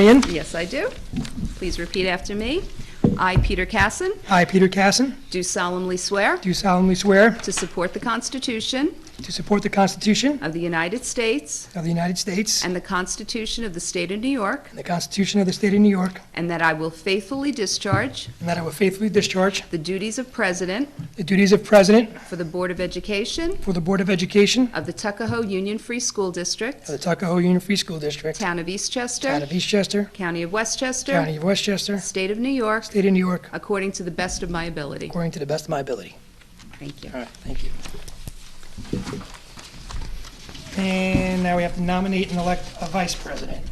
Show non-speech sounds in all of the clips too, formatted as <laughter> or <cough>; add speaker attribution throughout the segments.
Speaker 1: Marion?
Speaker 2: Yes, I do. Please repeat after me. I, Peter Casson,
Speaker 1: I, Peter Casson,
Speaker 2: do solemnly swear
Speaker 1: do solemnly swear
Speaker 2: to support the Constitution
Speaker 1: to support the Constitution
Speaker 2: of the United States
Speaker 1: of the United States
Speaker 2: and the Constitution of the State of New York,
Speaker 1: and the Constitution of the State of New York,
Speaker 2: and that I will faithfully discharge
Speaker 1: and that I will faithfully discharge
Speaker 2: the duties of President
Speaker 1: the duties of President
Speaker 2: for the Board of Education
Speaker 1: for the Board of Education
Speaker 2: of the Tuckahoe Union Free School
Speaker 1: of the
Speaker 2: District,
Speaker 1: Tuckahoe Union Free School District,
Speaker 2: Town of
Speaker 1: Town
Speaker 2: Eastchester,
Speaker 1: of Eastchester,
Speaker 2: County
Speaker 1: County
Speaker 2: of Westchester,
Speaker 1: of Westchester,
Speaker 2: State of New York,
Speaker 1: State of New York,
Speaker 2: according to the best of my ability.
Speaker 1: according to the best of my ability.
Speaker 2: Thank you.
Speaker 1: All right, thank you. And now we have to nominate and elect a vice president.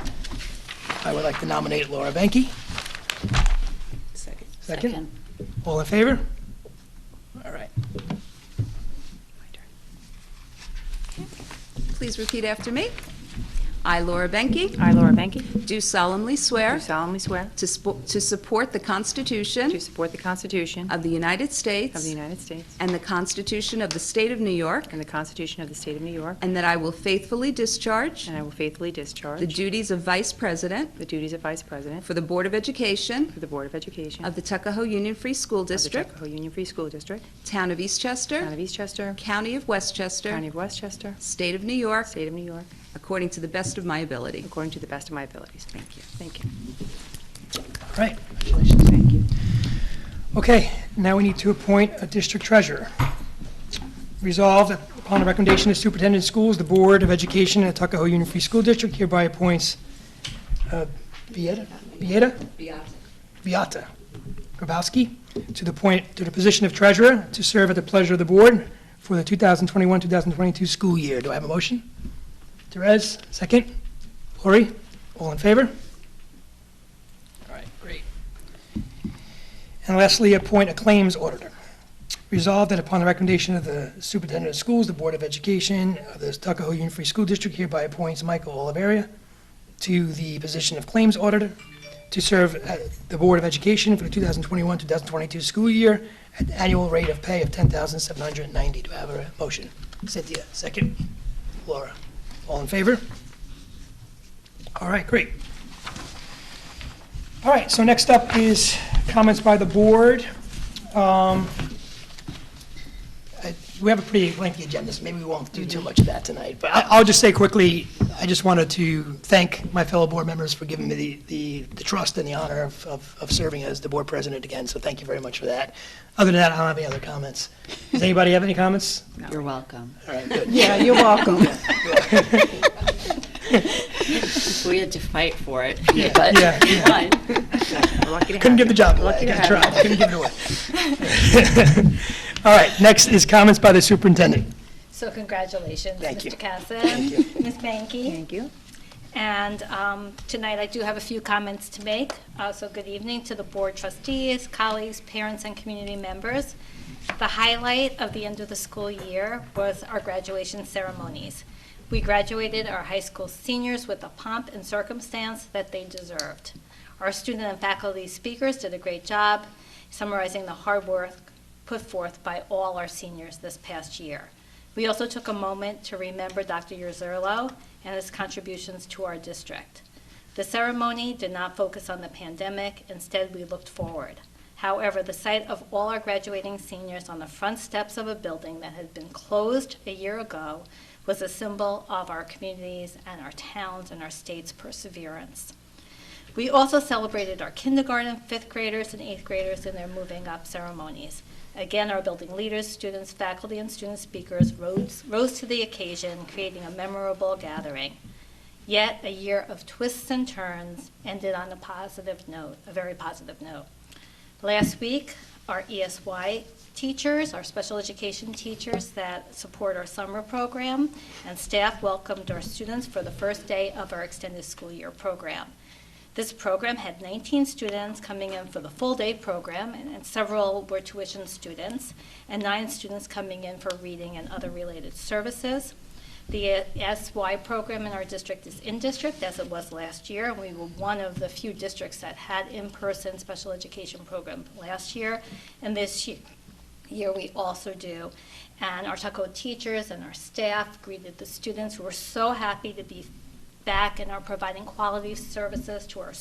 Speaker 1: I would like to nominate Laura Benke. Second. All in favor? All right.
Speaker 2: Please repeat after me. I, Laura Benke,
Speaker 3: I, Laura Benke,
Speaker 2: do solemnly swear
Speaker 3: do solemnly swear
Speaker 2: to spo- to support the
Speaker 3: to
Speaker 2: Constitution
Speaker 3: support the Constitution
Speaker 2: of the United
Speaker 3: of the
Speaker 2: States
Speaker 3: United States
Speaker 2: and the Constitution of the State of New York,
Speaker 3: and the Constitution of the State of New York,
Speaker 2: and that I will faithfully discharge
Speaker 3: and I will faithfully
Speaker 2: the
Speaker 3: discharge
Speaker 2: duties of Vice President
Speaker 3: the duties of Vice President
Speaker 2: for the Board of Education
Speaker 3: for the Board of Education
Speaker 2: of
Speaker 3: of
Speaker 2: the Tuckahoe Union Free School
Speaker 3: the
Speaker 2: District,
Speaker 3: Tuckahoe Union Free School District,
Speaker 2: Town of
Speaker 3: Town
Speaker 2: Eastchester,
Speaker 3: of Eastchester,
Speaker 2: County of
Speaker 3: County
Speaker 2: Westchester,
Speaker 3: of Westchester,
Speaker 2: State of New York,
Speaker 3: State of New York,
Speaker 2: according to the best of my ability.
Speaker 3: according to the best of my abilities. Thank you. Thank you.
Speaker 1: All right, congratulations. Thank you. Okay, now we need to appoint a district treasurer. Resolved that upon the recommendation of superintendent of schools, the Board of Education at Tuckahoe Union Free School District hereby appoints uh, Vieta, Vieta? Viata Grabowski to the point, to the position of treasurer to serve at the pleasure of the board for the 2021-2022 school year. Do I have a motion? Therese, second. Lori, all in favor? All right, great. And lastly, appoint a claims auditor. Resolved that upon the recommendation of the superintendent of schools, the Board of Education of the Tuckahoe Union Free School District hereby appoints Michael Oliveria to the position of claims auditor to serve at the Board of Education for the 2021-2022 school year at the annual rate of pay of $10,790. Do I have a motion? Cynthia, second. Laura, all in favor? All right, great. All right, so next up is comments by the board. Um, I- We have a pretty lengthy agenda, so maybe we won't do too much of that tonight. But I- I'll just say quickly, I just wanted to thank my fellow board members for giving me the- the the trust and the honor of- of of serving as the board president again, so thank you very much for that. Other than that, I don't have any other comments. Does anybody have any comments?
Speaker 4: You're welcome.
Speaker 1: All right, good.
Speaker 4: Yeah, you're welcome. We had to fight for it, <laughs> but
Speaker 1: Yeah,
Speaker 4: it's fine.
Speaker 3: We're lucky to
Speaker 1: Couldn't
Speaker 3: have
Speaker 1: give the job away. <laughs> I
Speaker 3: Lucky to
Speaker 1: gotta
Speaker 3: have
Speaker 1: try. Couldn't give it away. <laughs> All right, next is comments by the superintendent.
Speaker 5: So congratulations,
Speaker 1: Thank you.
Speaker 5: Mr. Casson, Ms. Banky.
Speaker 3: Thank you.
Speaker 5: And um, tonight, I do have a few comments to make. Uh, So good evening to the board trustees, colleagues, parents, and community members. The highlight of the end of the school year was our graduation ceremonies. We graduated our high school seniors with the pomp and circumstance that they deserved. Our student and faculty speakers did a great job summarizing the hard work put forth by all our seniors this past year. We also took a moment to remember Dr. Yerzerlo and his contributions to our district. The ceremony did not focus on the pandemic, instead, we looked forward. However, the sight of all our graduating seniors on the front steps of a building that had been closed a year ago was a symbol of our communities and our towns and our state's perseverance. We also celebrated our kindergarten, fifth graders, and eighth graders in their moving up ceremonies. Again, our building leaders, students, faculty, and student speakers rose, rose to the occasion, creating a memorable gathering. Yet, a year of twists and turns ended on a positive note, a very positive note. Last week, our ESY teachers, our special education teachers that support our summer program, and staff welcomed our students for the first day of our extended school year program. This program had 19 students coming in for the full-day program, and and several were tuition students, and nine students coming in for reading and other related services. The SY program in our district is in-district, as it was last year, and we were one of the few districts that had in-person special education program last year, and this ye- year we also do. And our Tuckahoe teachers and our staff greeted the students, who were so happy to be back and are providing quality services to our